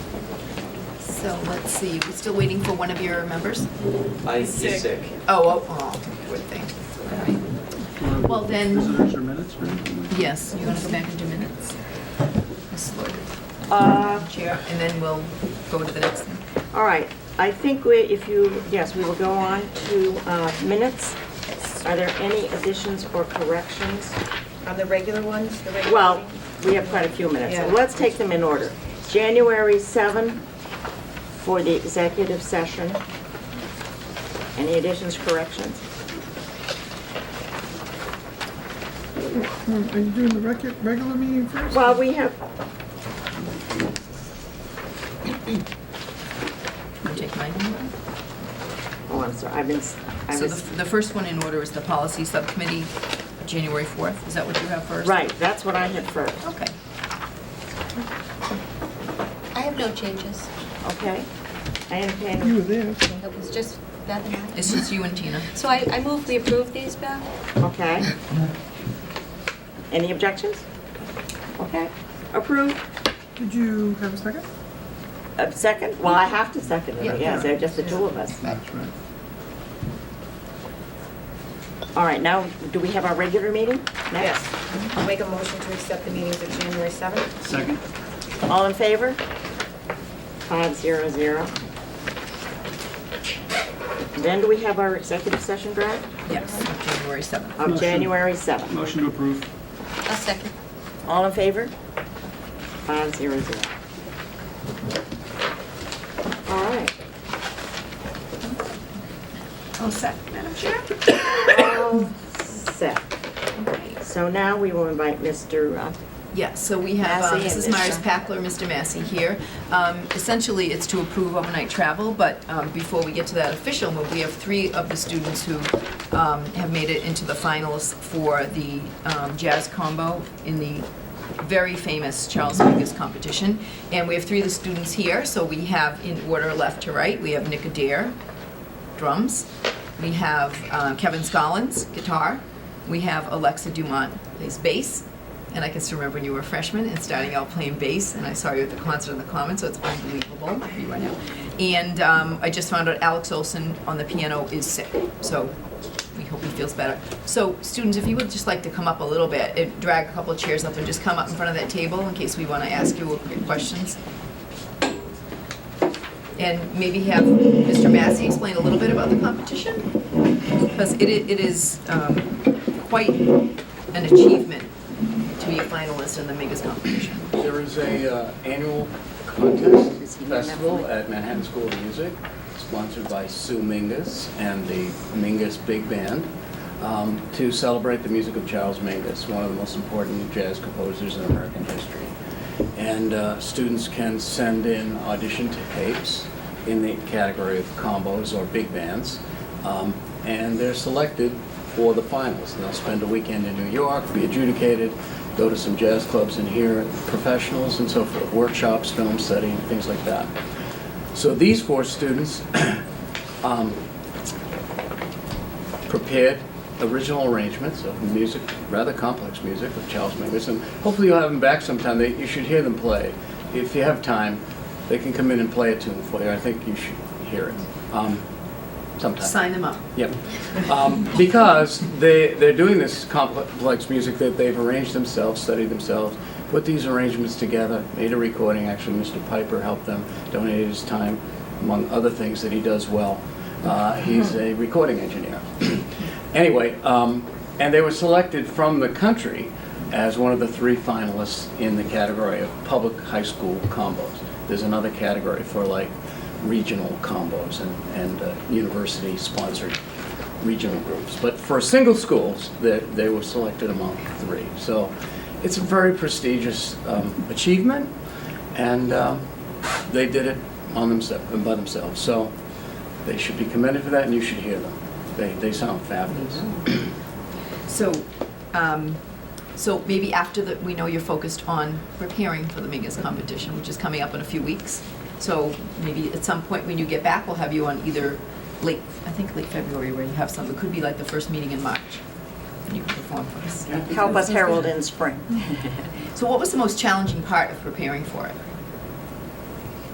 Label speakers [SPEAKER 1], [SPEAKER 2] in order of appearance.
[SPEAKER 1] So let's see, we're still waiting for one of your members?
[SPEAKER 2] I, he's
[SPEAKER 3] Sick.
[SPEAKER 2] sick.
[SPEAKER 1] Oh, oh, oh, good thing. All right. Well, then,
[SPEAKER 4] Visitors or minutes or anything?
[SPEAKER 1] yes, you want to go back into minutes? Ms. Lord,
[SPEAKER 3] Uh, Chair.
[SPEAKER 1] and then we'll go to the next one.
[SPEAKER 3] All right, I think we, if you, yes, we will go on to uh, minutes. Are there any additions or corrections?
[SPEAKER 5] On the regular ones, the regular
[SPEAKER 3] Well,
[SPEAKER 5] meeting?
[SPEAKER 3] we have quite a few minutes, so
[SPEAKER 5] Yeah.
[SPEAKER 3] let's take them in order. January 7 for the executive session. Any additions, corrections?
[SPEAKER 4] Are you doing the recu- regular meeting first?
[SPEAKER 3] Well, we have,
[SPEAKER 1] You Take mine.
[SPEAKER 3] oh, I'm sorry, I've been, s- I
[SPEAKER 1] So
[SPEAKER 3] was,
[SPEAKER 1] the the first one in order is the policy subcommittee, January 4th. Is that what you have first?
[SPEAKER 3] right, that's what I had first,
[SPEAKER 1] Okay.
[SPEAKER 6] I have no changes.
[SPEAKER 3] okay? I entertain.
[SPEAKER 4] You were there, so.
[SPEAKER 6] It was just Beth and I.
[SPEAKER 1] It's just you and Tina.
[SPEAKER 6] So I, I move we approve these, Beth?
[SPEAKER 3] Okay. Any objections? Okay, approved.
[SPEAKER 4] Did you have a second?
[SPEAKER 3] Uh, Second? Well, I have to second
[SPEAKER 1] Yeah.
[SPEAKER 3] it, yes, they're just the two of us.
[SPEAKER 4] That's right.
[SPEAKER 3] All right, now, do we have our regular meeting next?
[SPEAKER 5] Yes. I'll Make a motion to accept the meetings of January 7th.
[SPEAKER 4] Second?
[SPEAKER 3] All in favor? Five zero zero. Then do we have our executive session draft
[SPEAKER 1] Yes, January 7th.
[SPEAKER 3] of
[SPEAKER 4] Motion.
[SPEAKER 3] January 7th?
[SPEAKER 4] Motion to approve.
[SPEAKER 6] A second.
[SPEAKER 3] All in favor? Five zero zero. All right.
[SPEAKER 1] Oh, set, Madam Chair?
[SPEAKER 3] All set.
[SPEAKER 1] Okay.
[SPEAKER 3] So now we will invite Mr. uh,
[SPEAKER 1] Yes, so we have uh,
[SPEAKER 3] Massey and
[SPEAKER 1] Mrs. Myers
[SPEAKER 3] Mr.
[SPEAKER 1] Packler, Mr. Massey here. Um, Essentially, it's to approve overnight travel, but um, before we get to that official move, we have three of the students who um, have made it into the finalists for the um, jazz combo in the very famous Charles Mingus competition. And we have three of the students here, so we have, in order left to right, we have Nick Adair, drums. We have uh, Kevin Scollins, guitar. We have Alexa Dumont, plays bass. And I can still remember when you were a freshman and starting out playing bass, and I saw you at the concert in the Common, so it's unbelievable where you are now. And um, I just found out Alex Olson on the piano is sick, so we hope he feels better. So, students, if you would just like to come up a little bit, and drag a couple of chairs up and just come up in front of that table in case we want to ask you questions and maybe have Mr. Massey explain a little bit about the competition? Because it, i- it is um, quite an achievement to be a finalist in the Megas competition.
[SPEAKER 7] There is a uh, annual contest festival at Manhattan School of Music, sponsored by Sue Mingus and the Mingus Big Band, um, to celebrate the music of Charles Mingus, one of the most important jazz composers in American history. And uh, students can send in audition tapes in the category of combos or big bands, um, and they're selected for the finals. And they'll spend a weekend in New York, be adjudicated, go to some jazz clubs and hear professionals and so forth, workshops, film study, things like that. So these four students um, prepared original arrangements of music, rather complex music of Charles Mingus, and hopefully you'll have them back sometime. They, you should hear them play. If you have time, they can come in and play a tune for you. I think you should hear it um, sometime.
[SPEAKER 1] Sign them up.
[SPEAKER 7] Yep. Um, because they, they're doing this complex music that they've arranged themselves, studied themselves, put these arrangements together, made a recording. Actually, Mr. Piper helped them, donated his time, among other things that he does well. Uh, he's a recording engineer. anyway, um, and they were selected from the country as one of the three finalists in the category of public high school combos. There's another category for like regional combos and, and uh, university-sponsored regional groups. But for single schools, they, they were selected among three. So it's a very prestigious um, achievement, and um, they did it on themselves, by themselves. So they should be commended for that, and you should hear them. They, they sound fabulous.
[SPEAKER 1] So, um, so maybe after the, we know you're focused on preparing for the Megas competition, which is coming up in a few weeks. So maybe at some point when you get back, we'll have you on either late, I think late February where you have some, it could be like the first meeting in March. And you can perform for us.
[SPEAKER 3] Help Us Herald in Spring.
[SPEAKER 1] So what was the most challenging part of preparing for it?